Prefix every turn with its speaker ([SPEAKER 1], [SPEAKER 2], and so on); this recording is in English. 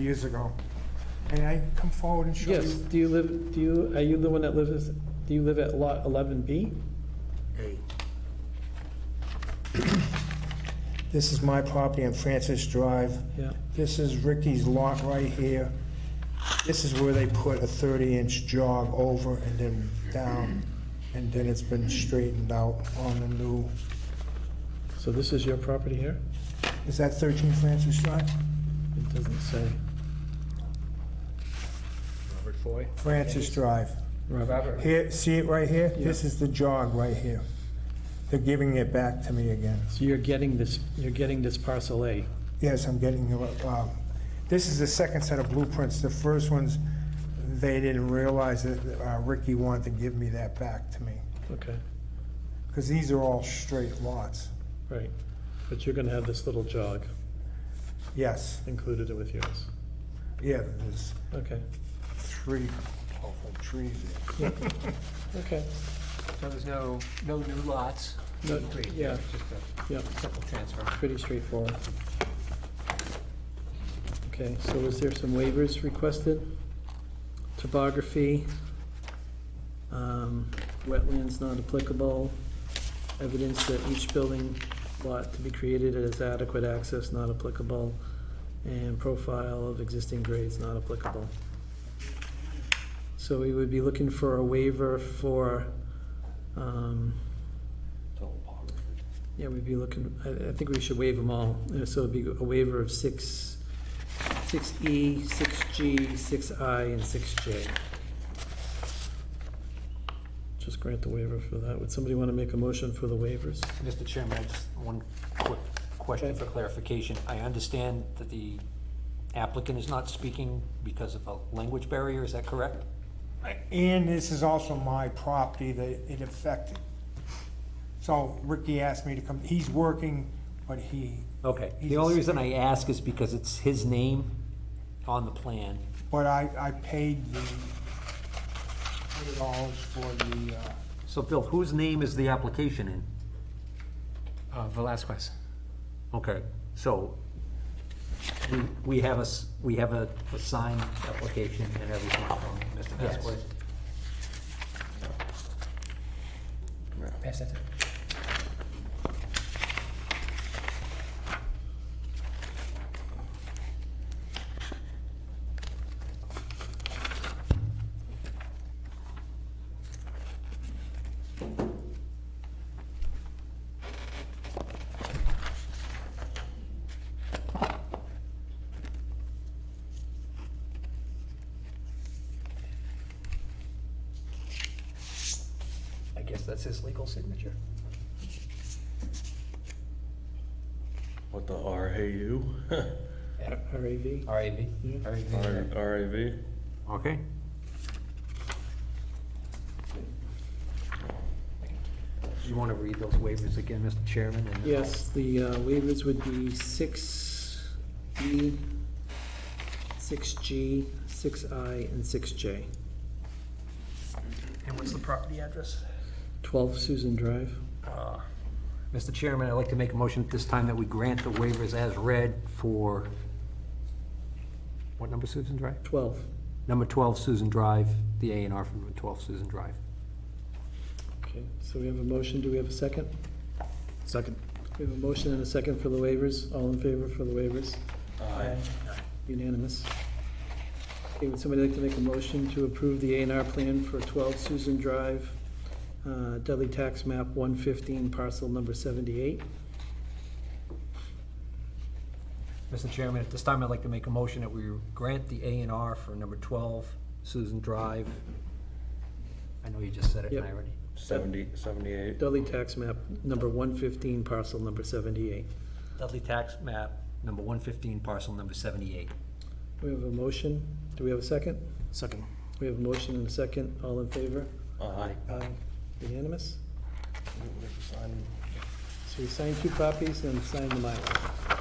[SPEAKER 1] years ago. May I come forward and show you?
[SPEAKER 2] Yes, do you live, do you, are you the one that lives, do you live at lot 11B?
[SPEAKER 1] This is my property on Francis Drive.
[SPEAKER 2] Yeah,
[SPEAKER 1] This is Ricky's lot right here. This is where they put a 30-inch jog over and then down, and then it's been straightened out on the new,
[SPEAKER 2] so this is your property here?
[SPEAKER 1] is that 13 Francis Drive?
[SPEAKER 2] It doesn't say.
[SPEAKER 3] Robert Foy.
[SPEAKER 1] Francis Drive.
[SPEAKER 2] Robert.
[SPEAKER 3] Robert.
[SPEAKER 1] Here, see it right here? This is the jog right here. They're giving it back to me again.
[SPEAKER 2] So you're getting this, you're getting this parcel A.
[SPEAKER 1] Yes, I'm getting, you, uh, this is the second set of blueprints. The first ones, they didn't realize that uh, Ricky wanted to give me that back to me,
[SPEAKER 2] Okay,
[SPEAKER 1] because these are all straight lots.
[SPEAKER 2] right. But you're gonna have this little jog
[SPEAKER 1] Yes,
[SPEAKER 2] included with yours.
[SPEAKER 1] yeah, there's
[SPEAKER 2] Okay,
[SPEAKER 1] three awful trees there.
[SPEAKER 2] okay,
[SPEAKER 3] So there's no, no new lots?
[SPEAKER 2] No,
[SPEAKER 3] Just a
[SPEAKER 2] yeah. yeah,
[SPEAKER 3] Simple transfer.
[SPEAKER 2] pretty straightforward. Okay, so is there some waivers requested? Topography, um, wetlands not applicable, evidence that each building lot to be created has adequate access not applicable, and profile of existing grades not applicable. So we would be looking for a waiver for, um, yeah, we'd be looking, I, I think we should waive them all, Uh, so it'd be a waiver of six, six E, six G, six I, and six J. Just grant the waiver for that, would somebody wanna make a motion for the waivers?
[SPEAKER 4] Mr. Chairman, I just, one quick question for clarification. I understand that the applicant is not speaking because of a language barrier, is that correct?
[SPEAKER 1] And this is also my property that it affected. So Ricky asked me to come, he's working, but he,
[SPEAKER 4] Okay. The only reason I ask is because it's his name on the plan.
[SPEAKER 1] but I, I paid the hundred dollars for the, uh,
[SPEAKER 4] So Bill, whose name is the application in?
[SPEAKER 3] Uh, Velazquez.
[SPEAKER 4] Okay, so we- we have a, s- we have a a signed application and everything from Mr. Vasquez.
[SPEAKER 3] Pass that down.
[SPEAKER 4] I guess that's his legal signature.
[SPEAKER 5] What the RAU?
[SPEAKER 2] R A V?
[SPEAKER 4] RAV?
[SPEAKER 5] RAV?
[SPEAKER 4] Okay. Do you want to read those waivers again, Mr. Chairman? and-
[SPEAKER 2] Yes, the uh, waivers would be six E, six G, six I, and six J.
[SPEAKER 3] And what's the property address?
[SPEAKER 2] Twelve Susan Drive.
[SPEAKER 4] Mr. Chairman, I'd like to make a motion at this time that we grant the waivers as read for, what number, Susan Drive?
[SPEAKER 2] Twelve.
[SPEAKER 4] Number 12 Susan Drive, the A and R from 12 Susan Drive.
[SPEAKER 2] Okay, so we have a motion, do we have a second?
[SPEAKER 3] Second.
[SPEAKER 2] We have a motion and a second for the waivers. All in favor for the waivers?
[SPEAKER 5] Aye.
[SPEAKER 2] Unanimous. Okay, would somebody like to make a motion to approve the A and R plan for 12 Susan Drive, uh, Dudley Tax Map 115, parcel number 78?
[SPEAKER 4] Mr. Chairman, at this time, I'd like to make a motion that we grant the A and R for number 12 Susan Drive. I know you just said it, and I
[SPEAKER 2] Yep.
[SPEAKER 4] already.
[SPEAKER 5] Seventy, seventy-eight.
[SPEAKER 2] Dudley Tax Map number 115, parcel number 78.
[SPEAKER 4] Dudley Tax Map, number 115, parcel number 78.
[SPEAKER 2] We have a motion. Do we have a second?
[SPEAKER 3] Second.
[SPEAKER 2] We have a motion and a second. All in favor?
[SPEAKER 5] Aye.
[SPEAKER 2] Aye. Unanimous? So we sign two copies and sign the Mylar.